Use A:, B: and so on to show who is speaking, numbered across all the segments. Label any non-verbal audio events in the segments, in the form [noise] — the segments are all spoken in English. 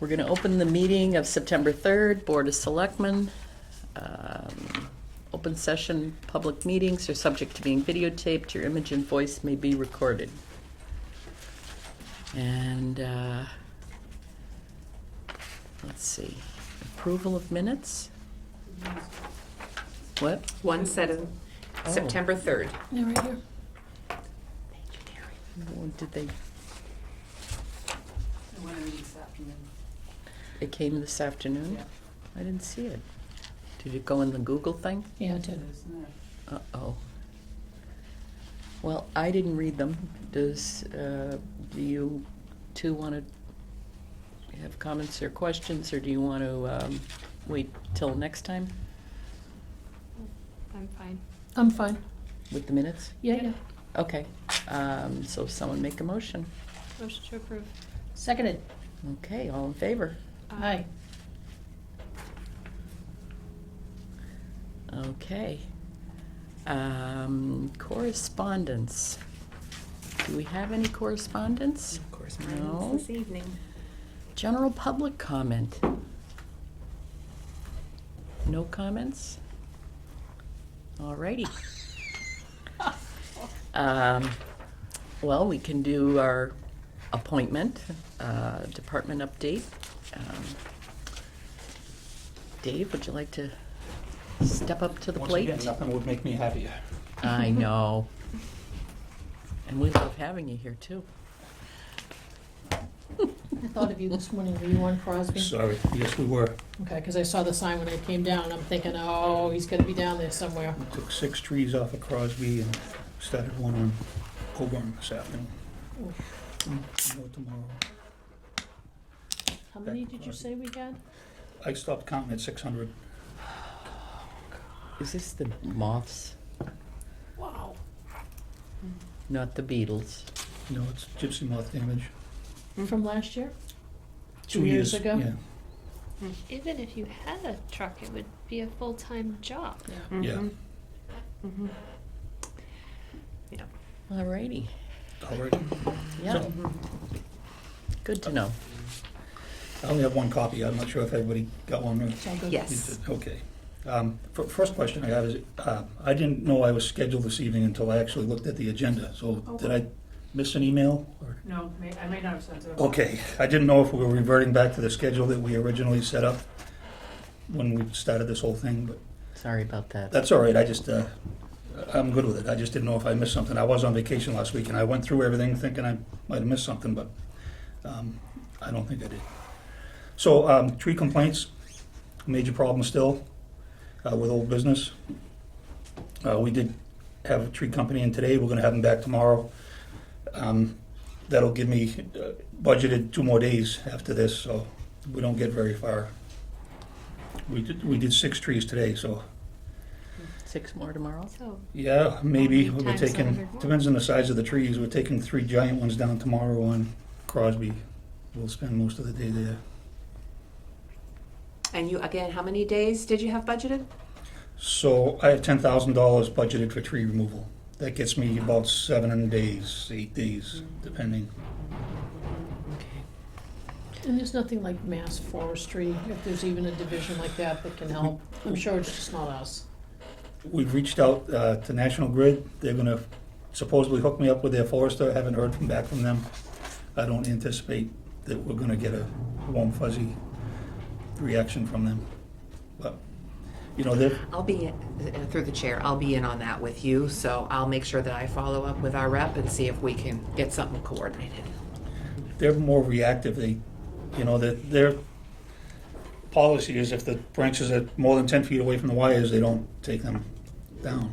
A: We're going to open the meeting of September 3rd, Board of Selectmen. Um, Open session, public meetings are subject to being videotaped. Your image and voice may be recorded. And uh, let's see, approval of minutes? What?
B: One set of
A: Oh.
B: September 3rd.
C: They're right here.
A: Or Oh, Did they,
D: I want to read this afternoon.
A: it came this afternoon?
D: Yeah.
A: I didn't see it. Did it go in the Google thing?
C: Yeah, it
D: It
C: did.
D: is, isn't it?
A: Uh-oh. Well, I didn't read them. Does, uh, do you two want to have comments or questions, or do you want to um, wait till next time
E: I'm fine.
C: I'm fine.
A: with the minutes?
C: Yeah, yeah.
A: Okay, um, so someone make a motion.
E: Motion to approve. Uh,
C: Seconded.
A: Okay, all in favor?
C: Aye.
A: Okay. Um, Correspondence. Do we have any correspondence?
B: Of course,
A: No.
B: This evening.
A: General public comment. No comments? All
B: [laughs]
A: righty. Um, Well, we can do our appointment, uh, department update. Um, Dave, would you like to step up to the
F: Once
A: plate?
F: again, nothing would make me happier.
A: I know. And we love having you here, too.
C: I thought of you this morning. Were you on Crosby?
F: Sorry, yes, we were.
C: Okay, because I saw the sign when I came down. I'm thinking, oh, he's gonna be down there somewhere.
F: We Took six trees off of Crosby and started one on Coburn this afternoon. Mm, More tomorrow.
C: How many did you say we had?
F: I stopped counting at six hundred.
A: Is this the moths,
C: Wow.
A: not the beetles?
F: No, it's gypsy moth damage.
C: From last year? Two years ago?
F: Yeah,
E: Even if you had a truck, it would be a full-time job.
D: Mm-hmm.
C: Mm-hmm.
F: yeah.
A: All righty.
F: All right.
A: Yeah,
F: So,
A: good to know.
F: I only have one copy. I'm not sure if everybody got one. or-
C: It's all good.
B: Yes.
F: Okay. Um, fir- First question I have is, uh, I didn't know I was scheduled this evening until I actually looked at the agenda. So
C: Oh.
F: did I miss an email or?
D: No, may- I may not have sent it.
F: Okay, I didn't know if we were reverting back to the schedule that we originally set up when we started this whole thing, but
A: Sorry about that.
F: that's all right, I just, uh, I'm good with it. I just didn't know if I missed something. I was on vacation last week, and I went through everything thinking I might have missed something, but um, I don't think I did. So, um, tree complaints, major problem still uh, with old business. Uh, We did have a tree company in today, we're gonna have them back tomorrow. Um, That'll give me uh, budgeted two more days after this, so we don't get very far. We did, we did six trees today, so
A: Six more tomorrow?
E: So,
F: yeah, maybe.
E: many
F: We're
E: times a
F: taking,
E: hundred more?
F: depends on the size of the trees. We're taking three giant ones down tomorrow on Crosby. We'll spend most of the day there.
B: And you, again, how many days did you have budgeted?
F: So I have ten thousand dollars budgeted for tree removal. That gets me about seven days, eight days,
B: Mm-hmm.
F: depending.
C: And there's nothing like mass forestry, if there's even a division like that that can help. I'm sure it's just not us.
F: We've reached out uh, to National Grid. They're gonna supposedly hook me up with their forester. I haven't heard from back from them. I don't anticipate that we're gonna get a warm fuzzy reaction from them. But, you know, they're,
B: I'll be, uh, through the chair, I'll be in on that with you, so I'll make sure that I follow up with our rep and see if we can get something coordinated.
F: they're more reactive. They, you know, that their policy is if the branches are more than ten feet away from the wires, they don't take them down.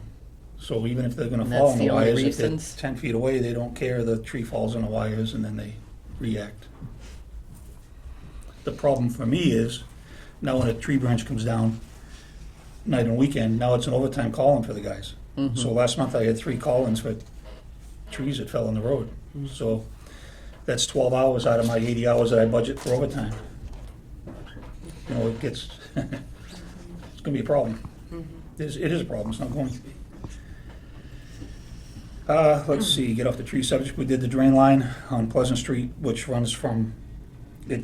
F: So even if they're gonna
A: And
F: fall
A: that's
F: on the
A: the only
F: wires, if they're
A: reasons?
F: ten feet away, they don't care. The tree falls on the wires and then they react. The problem for me is now when a tree branch comes down night and weekend, now it's an overtime call-in for the guys. So last month I had three call-ins for trees that fell on the road. So that's twelve hours out of my eighty hours that I budget for overtime. You know, it gets, [laughs] it's gonna be a problem. It is, it is a problem, it's not going to be. Uh, let's see, get off the tree subject, we did the drain line on Pleasant Street, which runs from